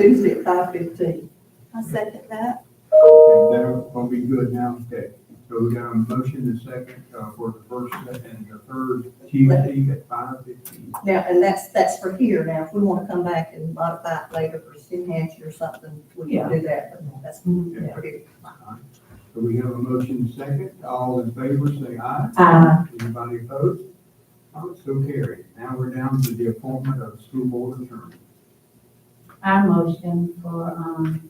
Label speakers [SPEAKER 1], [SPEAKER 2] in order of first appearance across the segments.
[SPEAKER 1] at five fifteen.
[SPEAKER 2] I second that.
[SPEAKER 3] And that will be good now, okay. So we got a motion and second uh, for the first and the third Tuesday at five fifteen.
[SPEAKER 1] Now, and that's, that's for here. Now, if we want to come back and modify it later for New Hampshire or something, we can do that. But That's, yeah, here.
[SPEAKER 3] So we have a motion and second, all in favor, say aye.
[SPEAKER 4] Aye.
[SPEAKER 3] Anybody opposed? Oh, so carried. Now we're down to the appointment of school board attorney.
[SPEAKER 4] I motion for, um,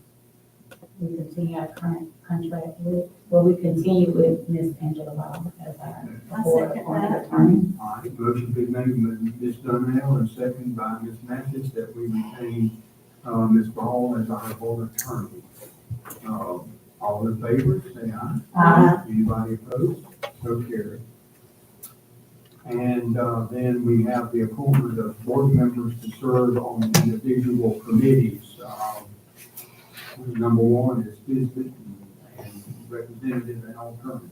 [SPEAKER 4] we continue our current contract with, well, we continue with Miss Angela Law as our
[SPEAKER 2] I
[SPEAKER 4] board
[SPEAKER 2] second
[SPEAKER 4] appointed
[SPEAKER 2] that.
[SPEAKER 4] attorney.
[SPEAKER 3] All right, motion been made by Ms. Donnell and second by Ms. Mathis that we retain, uh, Ms. Ball as our board attorney. Uh, all in favor, say aye.
[SPEAKER 4] Uh,
[SPEAKER 3] Anybody opposed? So carried. And uh, then we have the appointment of board members to serve on individual committees. Um, Number one is business and representative and alternative.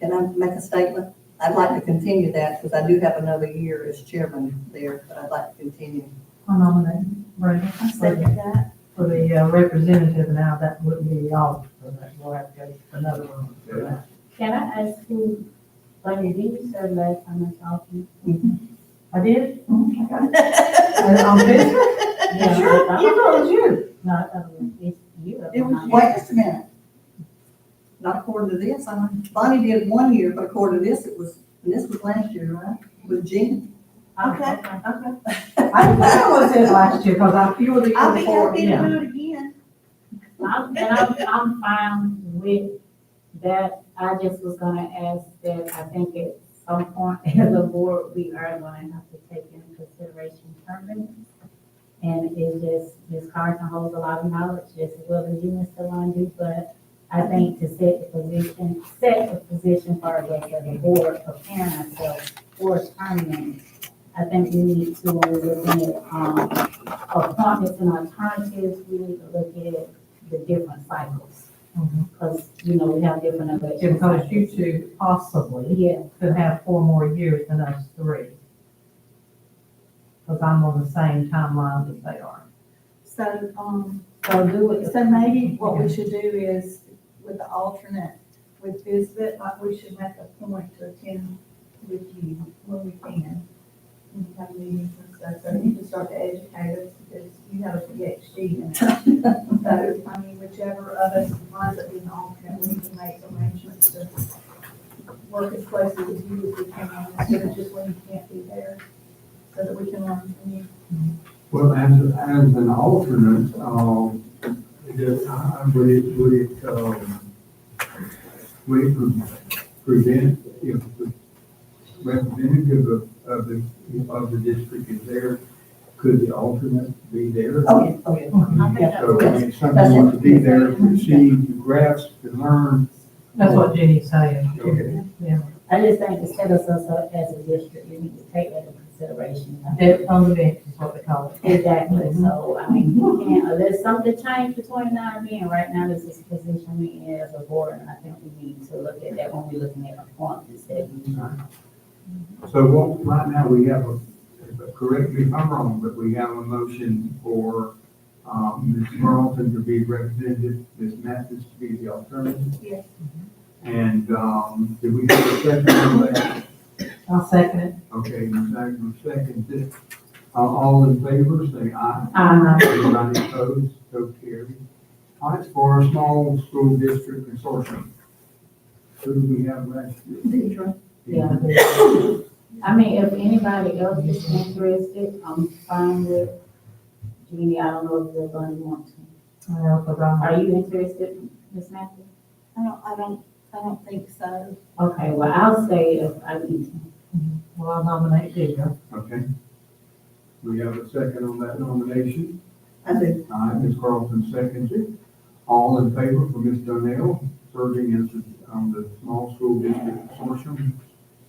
[SPEAKER 1] Can I make a statement? I'd like to continue that because I do have another year as chairman there, but I'd like to continue.
[SPEAKER 5] I nominate Brenda
[SPEAKER 2] I second that.
[SPEAKER 5] for the uh, representative. Now, that wouldn't be all for that. We'll have to get another one for that.
[SPEAKER 4] Can I ask who, Bunny, did you serve last time I talked to you?
[SPEAKER 5] I did?
[SPEAKER 2] Oh It
[SPEAKER 5] On business?
[SPEAKER 4] Yeah,
[SPEAKER 5] Sure,
[SPEAKER 4] I thought-
[SPEAKER 5] you know, it's you.
[SPEAKER 4] No, I thought it was it's you. I
[SPEAKER 5] It was-
[SPEAKER 1] Wait just a minute. Not according to this, I, Bonnie did one year, but according to this, it was, and this was last year, right? With Jean.
[SPEAKER 4] Okay.
[SPEAKER 5] Okay. I think I was in last year because I feel the
[SPEAKER 2] I'll be
[SPEAKER 5] uniform.
[SPEAKER 2] happy to do it again.
[SPEAKER 4] I'm, and I'm, I'm fine with that. I just was gonna ask that I think at some point as a board, we are gonna have to take into consideration term limits. And it's just, Ms. Carson holds a lot of knowledge, just as well as you, Mr. Lundy. but I think to set the position, set the position for us as a board, preparing ourselves for term limits. I think we need to, when we're looking at, um, appointments and alternatives, we need to look at the different cycles.
[SPEAKER 5] Mhm.
[SPEAKER 4] Because, you know, we have different election
[SPEAKER 5] Because you
[SPEAKER 4] cycles.
[SPEAKER 5] two possibly
[SPEAKER 4] Yeah,
[SPEAKER 5] could have four more years than us three. Because I'm on the same timeline that they are.
[SPEAKER 2] So, um,
[SPEAKER 4] so do it.
[SPEAKER 2] so maybe what we should do is with the alternate, with Bisbit, like we should make a point to attend with you when we can. And have meetings and stuff, so you can start to educate us because you have a PhD in it. So, I mean, whichever of us winds up being alternate, we can make arrangements to work as closely as you as we can, instead of just when you can't be there, so that we can learn from you.
[SPEAKER 3] Well, as, as an alternate, um, does, I- I- would it, would it, um, would it pre- prevent if the representative of, of the, of the district is there, could the alternate be there?
[SPEAKER 1] Oh, yeah, oh, yeah.
[SPEAKER 2] I think that's
[SPEAKER 3] So, I mean,
[SPEAKER 1] That's
[SPEAKER 3] someone
[SPEAKER 1] it.
[SPEAKER 3] wants to be there to see, to grasp, to learn.
[SPEAKER 5] That's what Jenny's saying.
[SPEAKER 3] Okay.
[SPEAKER 4] I just think to set us up as a district, we need to take that into consideration.
[SPEAKER 5] They're on the bench is what they call it.
[SPEAKER 4] Exactly, so, I mean, we can't, uh, unless something changed between now and then, right now, this is the position we in as a board, and I think we need to look at that when we're looking at appointments, that we
[SPEAKER 3] So what, right now, we have a, correct me if I'm wrong, but we have a motion for, um, Ms. Carlton to be representative, Ms. Mathis to be the alternative.
[SPEAKER 2] Yes.
[SPEAKER 3] And, um, did we have a second on that?
[SPEAKER 5] I'll second it.
[SPEAKER 3] Okay, Ms. Agnew seconded. Uh, all in favor, say aye.
[SPEAKER 4] Aye.
[SPEAKER 3] Anybody opposed? So carried. All right, for our small school district consortium. uh, Who do we have last year?
[SPEAKER 1] Deidre.
[SPEAKER 4] Yeah. I mean, if anybody else is interested, I'm fine with, Jeannie, I don't know if you're gonna want to.
[SPEAKER 5] Well, because I'm.
[SPEAKER 4] Are you interested, Ms. Matthews?
[SPEAKER 2] I don't, I don't, I don't think so.
[SPEAKER 4] Okay, well, I'll say if I need to.
[SPEAKER 5] Well, I nominate Deidre.
[SPEAKER 3] Okay. We have a second on that nomination.
[SPEAKER 1] I do.
[SPEAKER 3] Aye, Ms. Carlton seconds it. All in favor for Ms. Donnell serving as the, um, the small school district consortium? Say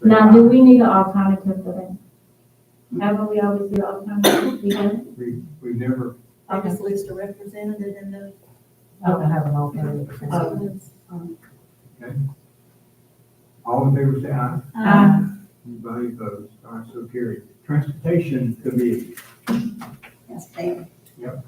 [SPEAKER 4] Now,
[SPEAKER 3] aye.
[SPEAKER 4] do we need an alternative for that? Haven't we always do alternative? We do?
[SPEAKER 3] We, we never,
[SPEAKER 2] I just list a representative in the.
[SPEAKER 5] Oh, I don't have an alternative.
[SPEAKER 4] Oh. Um,
[SPEAKER 3] all in favor say aye.
[SPEAKER 5] Uh-huh.
[SPEAKER 2] Um,
[SPEAKER 3] Anybody opposed? All right, so carried. Transportation Committee.
[SPEAKER 1] Yes, Deidre.